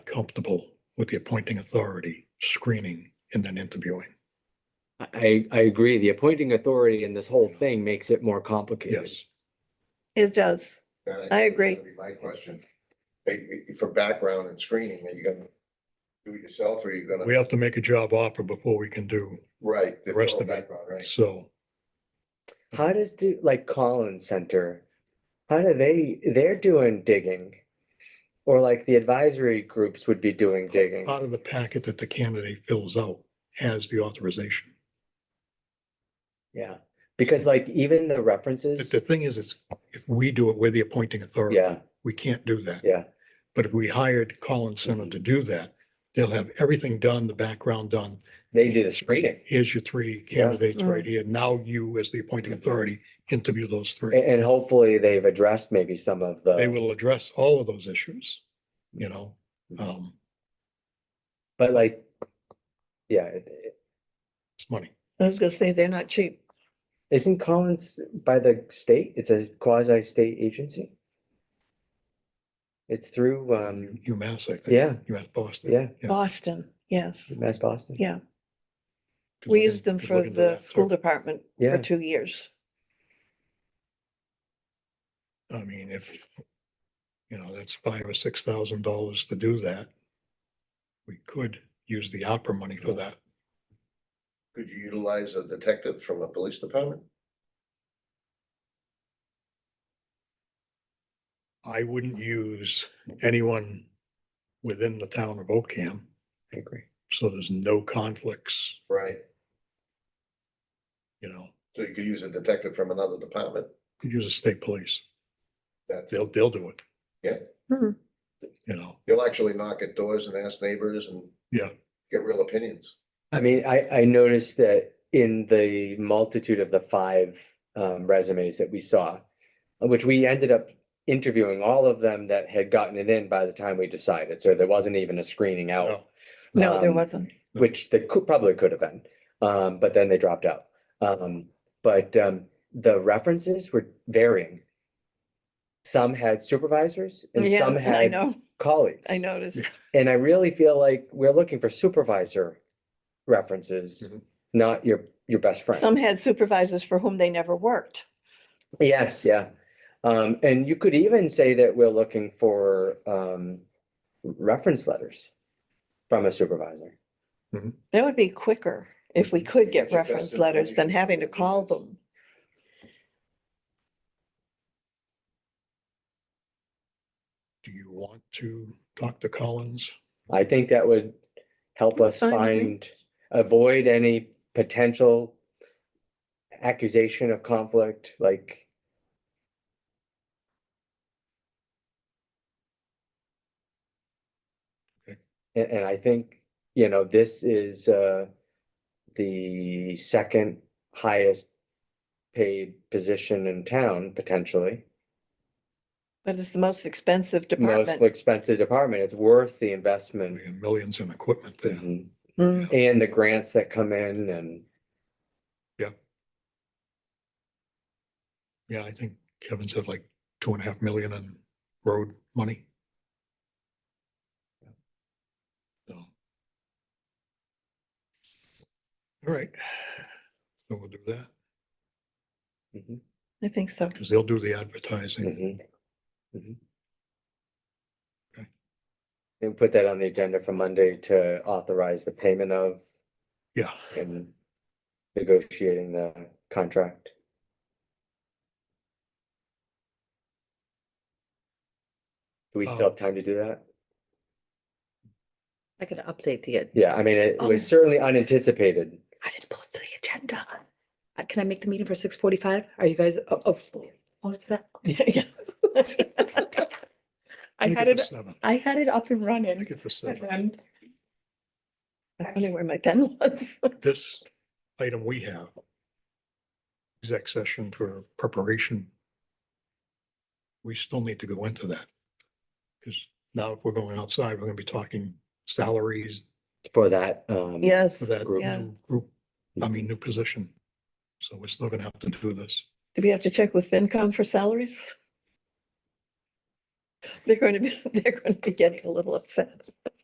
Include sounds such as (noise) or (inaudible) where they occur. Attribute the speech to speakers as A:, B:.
A: comfortable with the appointing authority screening and then interviewing.
B: I, I agree. The appointing authority in this whole thing makes it more complicated.
A: Yes,
C: It does.
D: That think
C: I
D: is
C: agree.
D: gonna be My question, Hey, for background and screening, are you gonna do it yourself or are you
A: we
D: gonna?
A: have to make a job offer before we can do
D: Right. this
A: Rest
D: all
A: of it.
D: background, Right.
A: so.
B: How does do, like Collins Center, how do they, they're doing digging? Or like the advisory groups would be doing digging.
A: Part of the packet that the candidate fills out has the authorization.
B: Yeah, because like even the
A: The,
B: references,
A: the thing is, it's, if we do it, we're the appointing authority.
B: yeah,
A: We can't do that.
B: yeah,
A: But if we hired Collins Center to do that, they'll have everything done, the background done.
B: they do the screening.
A: Here's your three
B: Yeah. Mm-hmm.
A: candidates right here. Now you, as the appointing authority, interview those
B: A-
A: three.
B: And, hopefully they've addressed maybe some of
A: They
B: the,
A: will address all of those issues, you know,
B: Mm-hmm.
A: um,
B: but like, yeah, it- it-
A: it's money.
C: I was gonna say, they're not cheap.
B: isn't Collins by the state? It's a quasi-state agency? It's through, um,
A: UMass, I think.
B: yeah,
A: UMass Boston.
B: yeah,
A: Yeah.
C: Boston, yes.
B: Mass Boston.
C: Yeah,
A: 'Cause
C: we
A: I
C: used
A: did-
C: them
A: did
C: for
A: look into
C: the
A: that,
C: school
A: so,
C: department
B: Yeah.
C: for two years.
A: I mean, if, you know, that's five or six thousand dollars to do that. We could use the opera money for that.
D: Could you utilize a detective from a police department?
A: I wouldn't use anyone within the town of Ocam,
B: I agree.
A: so there's no conflicts,
D: Right.
A: you know.
D: So you could use a detective from another department.
A: Could use a state police,
D: That's,
A: they'll, they'll do it.
D: Yeah.
C: Hmm.
A: You know,
D: you'll actually knock at doors and ask neighbors and.
A: Yeah.
D: Get real opinions.
B: I mean, I, I noticed that in the multitude of the five um, resumes that we saw, which we ended up interviewing all of them that had gotten it in by the time we decided. So there wasn't even a screening out,
A: no,
C: No, there
B: Um,
C: wasn't.
A: no.
B: which there could, probably could have been. Um, but then they dropped out. Um, but um, the references were varying. Some had supervisors and
C: Yeah,
B: some
C: (laughs) I
B: had
C: know,
B: colleagues.
C: I noticed.
B: (laughs) And I really feel like we're looking for supervisor references,
D: Mhm.
B: not your, your best
C: Some
B: friend.
C: had supervisors for whom they never worked.
B: Yes, yeah. Um, and you could even say that we're looking for, um, reference letters from a supervisor.
C: That would be quicker if we could
D: They
C: get
D: get your best
C: reference letters than
D: information
C: having to
D: from the
C: call
D: emails.
C: them.
A: do you want to talk to Collins?
B: I think that would help us
C: Fine with me.
B: find, avoid any potential accusation of conflict, like,
A: Okay.
B: and, and I think, you know, this is, uh, the second highest paid position in town, potentially.
C: But it's the most expensive
B: Most
C: department.
B: expensive department. It's worth the investment.
A: We have millions in equipment there.
B: Mhm.
C: Mm.
B: And the grants that come in and,
A: Yeah, I think Kevin said like two and a half million in road money. So. All right, so we'll do that, Mm-hmm.
B: Mhm,
C: I think so.
A: because they'll do the advertising.
B: mhm, mhm.
A: Okay.
B: And put that on the agenda for Monday to authorize the payment of
A: Yeah,
B: and negotiating the contract. Do we still
A: Oh.
B: have time to do that?
E: I could update the, ag-
B: Yeah, I mean, it was certainly unanticipated.
E: I didn't pull up the agenda. Uh, Can I make the meeting for six forty-five? Are you guys? oh, up- (laughs) up for- up for that?
C: Yeah.
E: I
A: make
E: had
A: it
E: it,
A: for seven,
E: I had it up and running.
A: make it for
E: and
A: seven.
E: then-
C: I don't know where my pen was.
A: This item we have. Exec session for preparation. We still need to go into that. Because now if we're going outside, we're gonna be talking salaries,
B: For that, um.
C: Yes,
A: for that
B: Group.
C: yeah.
A: new group, I mean, new position. So we're still gonna have to do this.
C: do we have to check with FinCom for salaries? (laughs) They're going to be, they're going to be getting a little upset.